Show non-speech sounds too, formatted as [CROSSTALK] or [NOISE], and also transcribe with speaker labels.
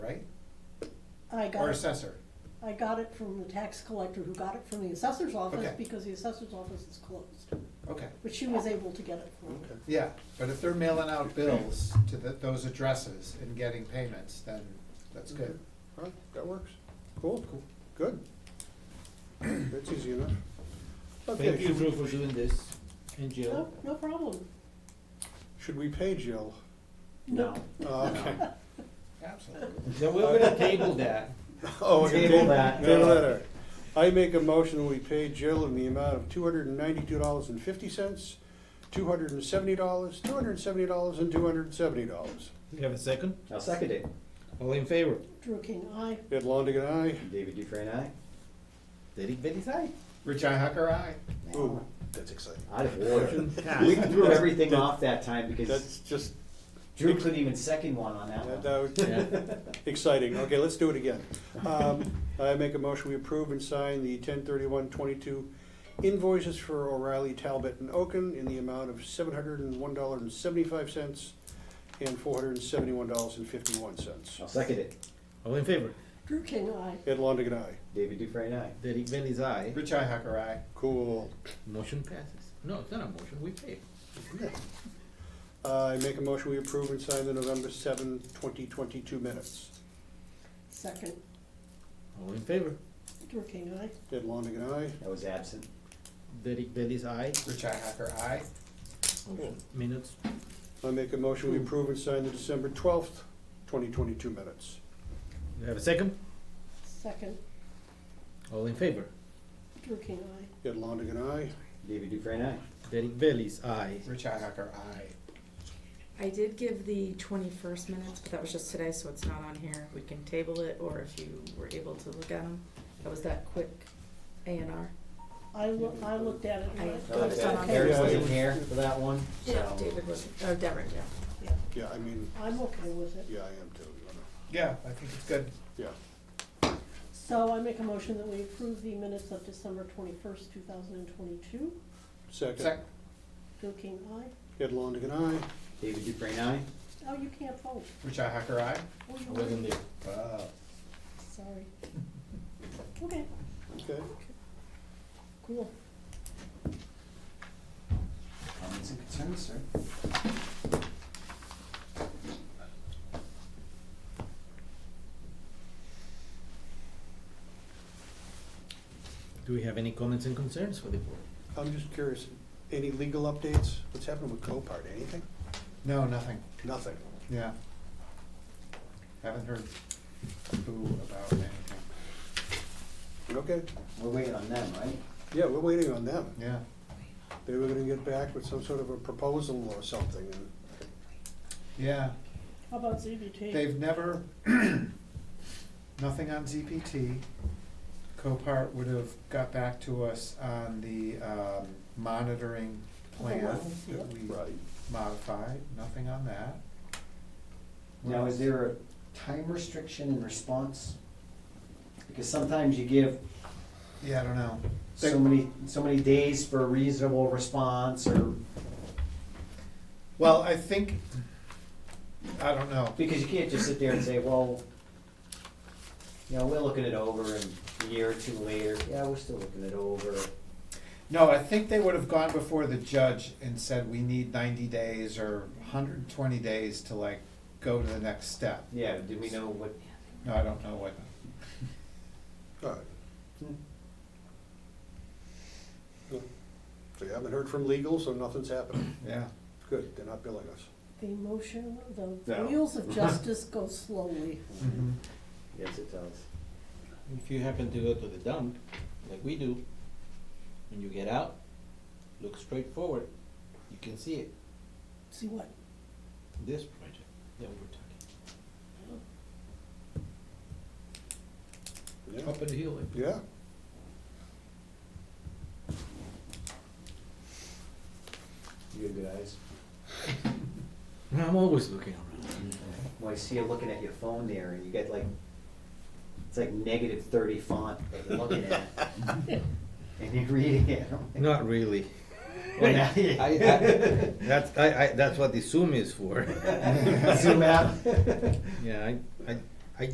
Speaker 1: I
Speaker 2: or
Speaker 1: got, it-
Speaker 2: assessor?
Speaker 1: I got it from the tax collector who got it from the assessor's office
Speaker 2: Okay.
Speaker 1: because the assessor's office is closed.
Speaker 2: Okay,
Speaker 1: But she was able to get it from me.
Speaker 2: yeah, but if they're mailing out bills to th those addresses and getting payments, then that's good.
Speaker 3: All right, that works. Cool, cool, good. That's easy enough.
Speaker 4: Thank
Speaker 3: Okay,
Speaker 4: you,
Speaker 3: should we-
Speaker 4: Drew, for doing this, and
Speaker 1: No,
Speaker 4: Jill.
Speaker 1: no problem.
Speaker 3: should we pay Jill?
Speaker 1: No.
Speaker 3: Uh, Okay.
Speaker 1: Mm-hmm.
Speaker 2: Absolutely.
Speaker 4: So we're gonna table that.
Speaker 3: [LAUGHS] Oh, okay,
Speaker 4: Table that.
Speaker 3: Table that, all right. I make a motion, we pay Jill in the amount of two hundred and ninety-two dollars and fifty cents, two hundred and seventy dollars, two hundred and seventy dollars, and two hundred and seventy dollars.
Speaker 4: You have a second?
Speaker 5: I'll second it.
Speaker 4: All in favor?
Speaker 1: Drew King, I.
Speaker 3: Ed Longigan, aye.
Speaker 5: David Dufresne, aye. Derek Bailey's aye.
Speaker 2: Richi Hacker, aye.
Speaker 3: Ooh,
Speaker 6: That's exciting.
Speaker 5: Out of order. We threw everything off that time because
Speaker 3: that's just,
Speaker 5: Drew couldn't even second one on that
Speaker 3: that
Speaker 5: one.
Speaker 3: that
Speaker 4: [LAUGHS]
Speaker 3: was exciting. Okay, let's do it again. Um, I make a motion, we approve and sign the ten thirty-one twenty-two invoices for O'Reilly, Talbot, and Oaken in the amount of seven hundred and one dollar and seventy-five cents and four hundred and seventy-one dollars and fifty-one cents.
Speaker 5: I'll second it.
Speaker 4: All in favor?
Speaker 1: Drew King, I.
Speaker 3: Ed Longigan, aye.
Speaker 5: David Dufresne, aye.
Speaker 4: Derek Bell is aye.
Speaker 2: Richi Hacker, aye.
Speaker 3: Cool.
Speaker 4: Motion passes. No, it's not a motion, we pay.
Speaker 3: I make a motion, we approve and sign the November 7, 2022 minutes.
Speaker 1: Second,
Speaker 4: All in favor?
Speaker 1: Drew King, I.
Speaker 3: Ed Longigan, aye.
Speaker 5: I was absent.
Speaker 4: Derek Bell is aye.
Speaker 2: Richi Hacker, aye.
Speaker 4: Motion- Minutes.
Speaker 3: I make a motion, we approve and sign the December twelfth, 2022 minutes.
Speaker 4: You have a second?
Speaker 1: Second,
Speaker 4: All in favor?
Speaker 1: Drew King, I.
Speaker 3: Ed Longigan, aye.
Speaker 5: David Dufresne, aye.
Speaker 4: Derek Bell is aye.
Speaker 2: Richi Hacker, aye.
Speaker 7: I did give the twenty-first minutes, but that was just today, so it's not on here. We can table it, or if you were able to look at them. That was that quick A and R.
Speaker 1: I loo- I looked at it and I.
Speaker 5: That was it. Eric wasn't here for that one, so.
Speaker 7: David was, oh, Derek, yeah.
Speaker 1: Yeah,
Speaker 3: Yeah, I mean,
Speaker 1: I'm okay with it.
Speaker 3: yeah, I am too. you know.
Speaker 2: Yeah, I think it's good.
Speaker 3: Yeah,
Speaker 1: So I make a motion that we approve the minutes of December twenty-first, two thousand and twenty-two.
Speaker 3: second.
Speaker 2: Sec,
Speaker 1: Drew King, I.
Speaker 3: Ed Longigan, aye.
Speaker 5: David Dufresne, aye.
Speaker 1: Oh, you can't vote.
Speaker 2: Richi Hacker, aye.
Speaker 1: Oh,
Speaker 4: I
Speaker 1: you
Speaker 4: wasn't there.
Speaker 2: Wow.
Speaker 1: [LAUGHS] Sorry. Okay,
Speaker 3: Okay.
Speaker 1: cool.
Speaker 5: Comments and concerns, sir?
Speaker 4: Do we have any comments and concerns for the board?
Speaker 3: I'm just curious, any legal updates? What's happening with Copart? Anything?
Speaker 2: No, nothing.
Speaker 3: Nothing.
Speaker 2: Yeah. Haven't heard boo about anything.
Speaker 3: Okay.
Speaker 5: We're waiting on them, right?
Speaker 3: Yeah, we're waiting on them.
Speaker 2: Yeah.
Speaker 3: They were gonna get back with some sort of a proposal or something, and
Speaker 2: Yeah.
Speaker 1: How about ZBT?
Speaker 2: They've never, [CLEARS THROAT] nothing on ZPT. Copart would have got back to us on the um, monitoring plan
Speaker 1: Otherwise,
Speaker 2: that
Speaker 1: yeah.
Speaker 2: we modified, nothing on that.
Speaker 5: Now, is there a time restriction in response? Because sometimes you give
Speaker 2: Yeah, I don't know.
Speaker 5: so many, so many days for a reasonable response or,
Speaker 2: Well, I think, I don't know.
Speaker 5: because you can't just sit there and say, well, you know, we're looking it over and a year or two later, yeah, we're still looking it over.
Speaker 2: No, I think they would have gone before the judge and said, we need ninety days or hundred and twenty days to like go to the next step.
Speaker 5: Yeah, did we know what,
Speaker 2: No, I don't know what,
Speaker 3: all right. Hmm. So you haven't heard from legal, so nothing's happening.
Speaker 2: yeah.
Speaker 3: Good, they're not billing us.
Speaker 1: The motion, the
Speaker 5: No.
Speaker 1: wheels of justice go slowly.
Speaker 2: Mhm.
Speaker 5: yes, it does.
Speaker 4: If you happen to go to the dump, like we do, when you get out, look straight forward, you can see it,
Speaker 1: See what?
Speaker 4: this project that we're talking.
Speaker 3: Yeah.
Speaker 4: Up in the hill, I
Speaker 3: Yeah.
Speaker 5: You have good eyes.
Speaker 4: believe. I'm always looking around.
Speaker 5: Well, I see you looking at your phone there and you get like, it's like negative thirty font that you're looking at. And you're reading it. [LAUGHS]
Speaker 4: Not really.
Speaker 5: Well, now you-
Speaker 4: [LAUGHS] I, I, that's, I, I, that's what the [LAUGHS] Zoom is for.
Speaker 5: Zoom out.
Speaker 4: Yeah, I, I,